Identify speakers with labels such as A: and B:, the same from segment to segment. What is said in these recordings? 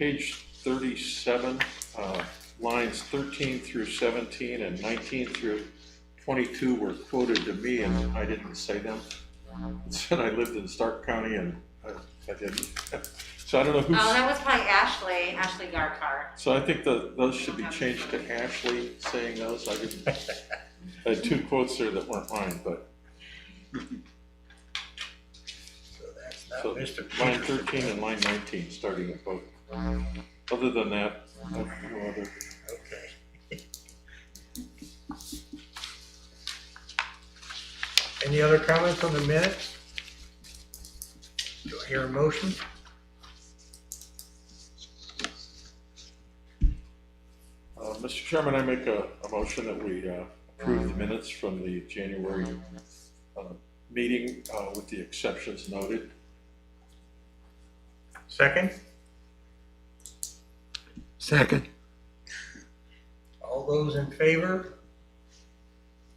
A: page thirty-seven, uh, lines thirteen through seventeen and nineteen through twenty-two were quoted to me and I didn't say them. It said I lived in Stark County and I, I didn't. So I don't know
B: Oh,
A: who's,
B: that was probably Ashley, Ashley Garkar.
A: so I think the, those should be changed to Ashley saying those. I didn't, I had two quotes there that weren't mine, but
C: So that's not
A: So,
C: Mr.
A: line
C: Peters.
A: thirteen and line nineteen starting at both. Other than that, I have no other.
C: Okay. Any other comments on the minutes? Do I hear a motion?
A: Uh, Mr. Chairman, I make a, a motion that we uh, approve the minutes from the January uh, meeting uh, with the exceptions noted.
C: Second?
D: Second.
C: All those in favor?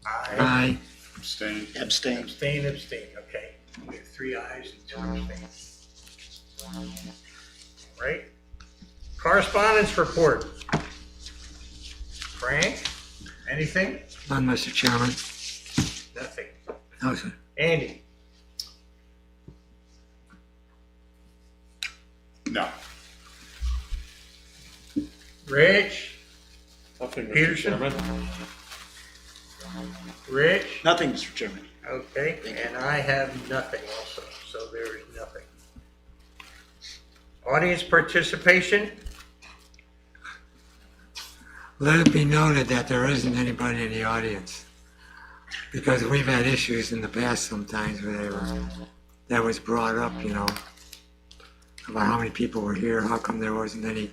C: Aye.
D: Aye.
E: Abstain.
F: Abstain.
C: Abstain, abstain, okay. We have three ayes and two abstains. All Right? Correspondence report. Frank? Anything?
D: None, Mr. Chairman.
C: Nothing.
D: No, sir.
C: Andy?
E: No.
C: Rich?
A: Nothing, Mr.
C: Peterson?
A: Chairman.
C: Rich?
F: Nothing, Mr. Chairman.
C: Okay,
F: Thank you.
C: and I have nothing also, so there is nothing. Audience participation?
D: Let it be noted that there isn't anybody in the audience. Because we've had issues in the past sometimes where they were, that was brought up, you know, about how many people were here, how come there wasn't any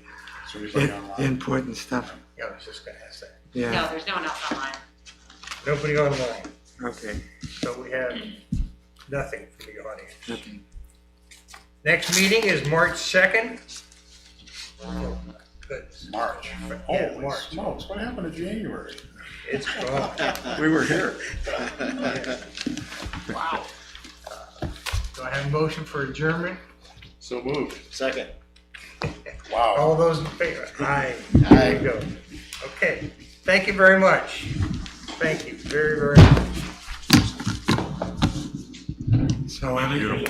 E: So we play
D: in-
E: online.
D: input and stuff.
C: Yeah, I was just gonna ask that.
B: No,
D: Yeah,
B: there's no one else online.
C: Nobody online,
D: okay,
C: so we have nothing for the audience.
D: nothing.
C: Next meeting is March 2nd. Good.
E: March.
C: Yeah,
E: Holy
C: March.
E: smokes, what happened to January?
C: It's gone.
E: We were here.
B: Wow.
C: Uh, Do I have a motion for adjournment?
A: So moved.
F: Second.
E: Wow.
C: All those in favor? Aye.
F: Aye.
C: There you go. Okay, thank you very much. Thank you very, very much.
D: So every,